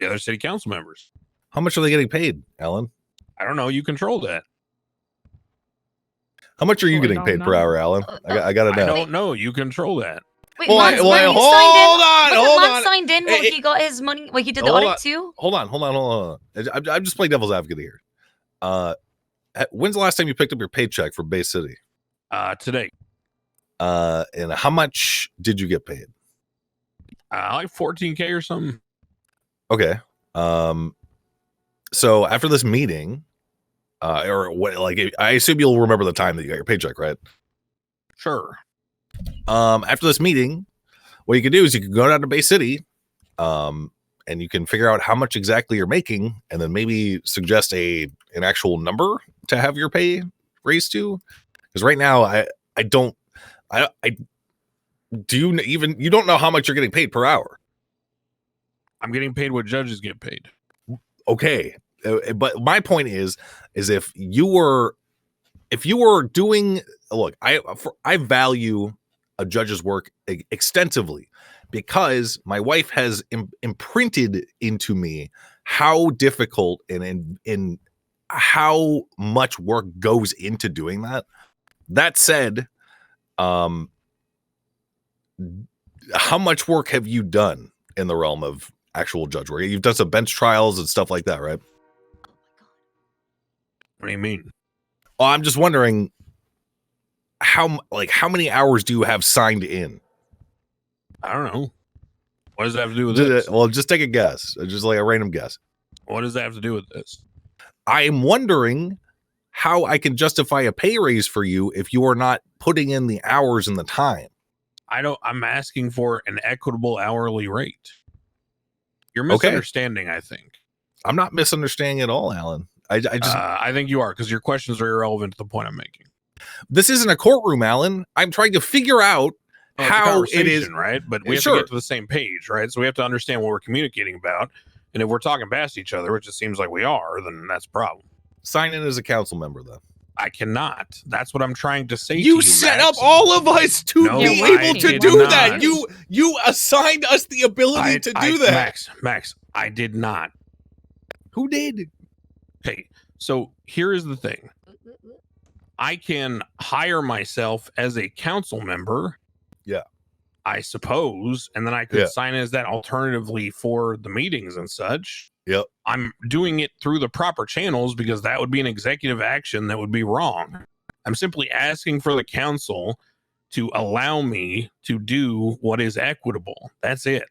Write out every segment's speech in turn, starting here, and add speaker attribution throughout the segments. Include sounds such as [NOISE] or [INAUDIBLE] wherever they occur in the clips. Speaker 1: the other city council members.
Speaker 2: How much are they getting paid, Alan?
Speaker 1: I don't know. You control that.
Speaker 2: How much are you
Speaker 3: Oh, I
Speaker 2: getting
Speaker 3: don't
Speaker 2: paid per
Speaker 3: know.
Speaker 2: hour, Alan?
Speaker 4: Uh,
Speaker 2: I, got- I gotta
Speaker 1: I
Speaker 2: know.
Speaker 1: don't know. You control that.
Speaker 4: Wait,
Speaker 2: Well,
Speaker 4: Lance,
Speaker 2: well,
Speaker 4: when you
Speaker 2: hold on,
Speaker 4: signed in,
Speaker 2: hold
Speaker 4: wasn't
Speaker 2: on.
Speaker 4: Lance signed in when
Speaker 2: Hey,
Speaker 4: he got his money? Like he did the
Speaker 2: hold
Speaker 4: audit
Speaker 2: on.
Speaker 4: too.
Speaker 2: Hold on, hold on, hold on. I'm, I'm just playing devil's advocate here. Uh, h- when's the last time you picked up your paycheck from Bay City?
Speaker 1: Uh, today,
Speaker 2: Uh, and how much did you get paid?
Speaker 1: uh, like 14k or something.
Speaker 2: Okay. Um, so after this meeting, uh, or what? Like, I assume you'll remember the time that you got your paycheck, right?
Speaker 1: Sure.
Speaker 2: um, after this meeting, what you can do is you can go down to Bay City, um, and you can figure out how much exactly you're making, and then maybe suggest a an actual number to have your pay raised to. Because right now, I I don't I I do you kn- even you don't know how much you're getting paid per hour.
Speaker 1: I'm getting paid what judges get paid.
Speaker 2: okay Uh, but my point is is if you were if you were doing look i for, i value a judge's work e- extensively because my wife has Im- imprinted into me how difficult and in in how much work goes into doing that that said um how much work have you done in the realm of actual judge work. You've done some bench trials and stuff like that, right?
Speaker 1: What do you mean?
Speaker 2: Oh, I'm just wondering how m- like how many hours do you have signed in?
Speaker 1: I don't know. What does that have to do with
Speaker 2: Just-
Speaker 1: this?
Speaker 2: uh, well, just take a guess, uh, just like a random guess.
Speaker 1: What does that have to do with this?
Speaker 2: I am wondering how I can justify a pay raise for you if you are not putting in the hours and the time.
Speaker 1: I don't. I'm asking for an equitable hourly rate. You're
Speaker 2: Okay.
Speaker 1: misunderstanding. I think.
Speaker 2: I'm not misunderstanding at all, Alan. I, I just
Speaker 1: uh, I think you are because your questions are irrelevant to the point I'm making.
Speaker 2: this isn't a courtroom, Alan. I'm trying to figure out
Speaker 5: Oh,
Speaker 1: Well, it's a
Speaker 2: how it is.
Speaker 1: conversation, right? But we have to
Speaker 2: Sure.
Speaker 1: get to the same page, right? So we have to understand what we're communicating about. And if we're talking past each other, which it seems like we are, then that's a problem.
Speaker 2: Sign in as a council member, though.
Speaker 1: I cannot. That's what I'm trying to say. to
Speaker 5: You set
Speaker 1: Max.
Speaker 5: up all of us to
Speaker 1: No,
Speaker 5: be
Speaker 1: I
Speaker 5: able to
Speaker 1: did
Speaker 5: do
Speaker 1: not.
Speaker 5: that. You you assigned us the ability
Speaker 1: I-
Speaker 5: to do
Speaker 1: I-
Speaker 5: that.
Speaker 1: Max, Max, I did not.
Speaker 2: Who did?
Speaker 1: Hey, so here is the thing. I can hire myself as a council member.
Speaker 2: Yeah.
Speaker 1: I suppose. And then I could
Speaker 2: Yeah.
Speaker 1: sign as that alternatively for the meetings and such.
Speaker 2: Yep.
Speaker 1: I'm doing it through the proper channels because that would be an executive action that would be wrong. I'm simply asking for the council to allow me to do what is equitable. That's it.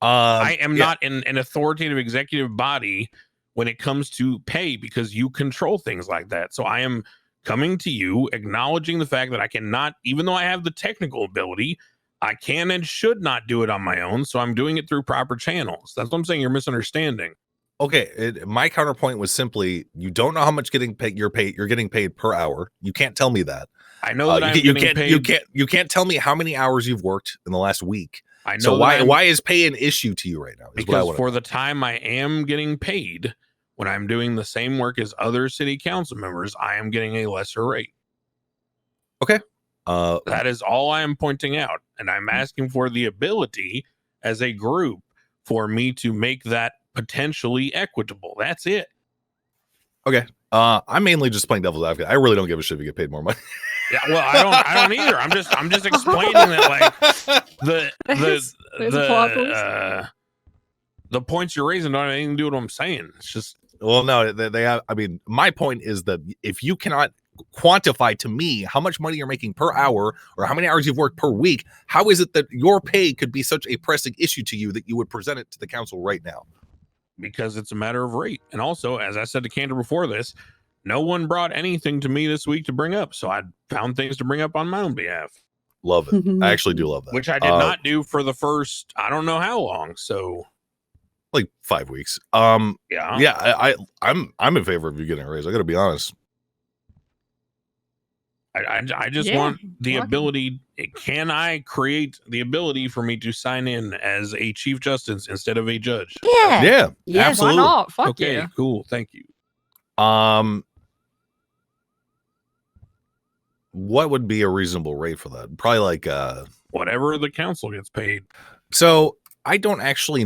Speaker 2: Um,
Speaker 1: I am
Speaker 2: yeah.
Speaker 1: not an, an authoritative executive body when it comes to pay because you control things like that. So I am coming to you acknowledging the fact that I cannot, even though I have the technical ability, I can and should not do it on my own. So I'm doing it through proper channels. That's what I'm saying. You're misunderstanding.
Speaker 2: Okay, it, my counterpoint was simply you don't know how much getting paid you're paid you're getting paid per hour. You can't tell me that.
Speaker 1: I know
Speaker 2: Uh,
Speaker 1: that I'm
Speaker 2: you,
Speaker 1: getting
Speaker 2: can't, you can't
Speaker 1: paid.
Speaker 2: you can't you can't tell me how many hours you've worked in the last week.
Speaker 1: I know
Speaker 2: So
Speaker 1: that
Speaker 2: why
Speaker 1: I'm-
Speaker 2: why is pay an issue to you right now? Is what I
Speaker 1: because
Speaker 2: wanna-
Speaker 1: for the time I am getting paid when I'm doing the same work as other city council members, I am getting a lesser rate.
Speaker 2: uh,
Speaker 1: That is all I am pointing out. And
Speaker 3: Hmm.
Speaker 1: I'm asking for the ability as a group for me to make that potentially equitable. That's it.
Speaker 2: uh, I'm mainly just playing devil's advocate. I really don't give a shit if you get paid more money.
Speaker 1: Yeah, well, I don't I don't either. I'm just I'm
Speaker 3: [LAUGHS]
Speaker 1: just explaining that like
Speaker 2: [LAUGHS]
Speaker 1: the the
Speaker 3: There's- there's
Speaker 1: the
Speaker 3: a plot twist.
Speaker 1: uh, the points you're raising don't have anything to do with what I'm saying. It's just
Speaker 2: well, no, they, they have. I mean, my point is that if you cannot quantify to me how much money you're making per hour or how many hours you've worked per week, how is it that your pay could be such a pressing issue to you that you would present it to the council right now?
Speaker 1: because it's a matter of rate. And also, as I said to Cantor before this, no one brought anything to me this week to bring up. So I found things to bring up on my own behalf.
Speaker 2: Love it. I actually do love that.
Speaker 1: Which I did
Speaker 2: Uh,
Speaker 1: not do for the first I don't know how long. So
Speaker 2: like five weeks. Um,
Speaker 1: yeah.
Speaker 2: yeah, I, I, I'm, I'm in favor of you getting a raise. I got to be honest.
Speaker 1: I, I, I just
Speaker 3: Yeah,
Speaker 1: want the
Speaker 3: welcome.
Speaker 1: ability. eh, Can I create the ability for me to sign in as a chief justice instead of a judge?
Speaker 4: Yeah.
Speaker 2: Yeah,
Speaker 3: yeah,
Speaker 2: absolutely.
Speaker 3: why not? Fuck
Speaker 1: okay,
Speaker 3: yeah.
Speaker 1: cool. Thank you.
Speaker 2: Um, what would be a reasonable rate for that? Probably like uh.
Speaker 1: Whatever the council gets paid.
Speaker 2: So I don't actually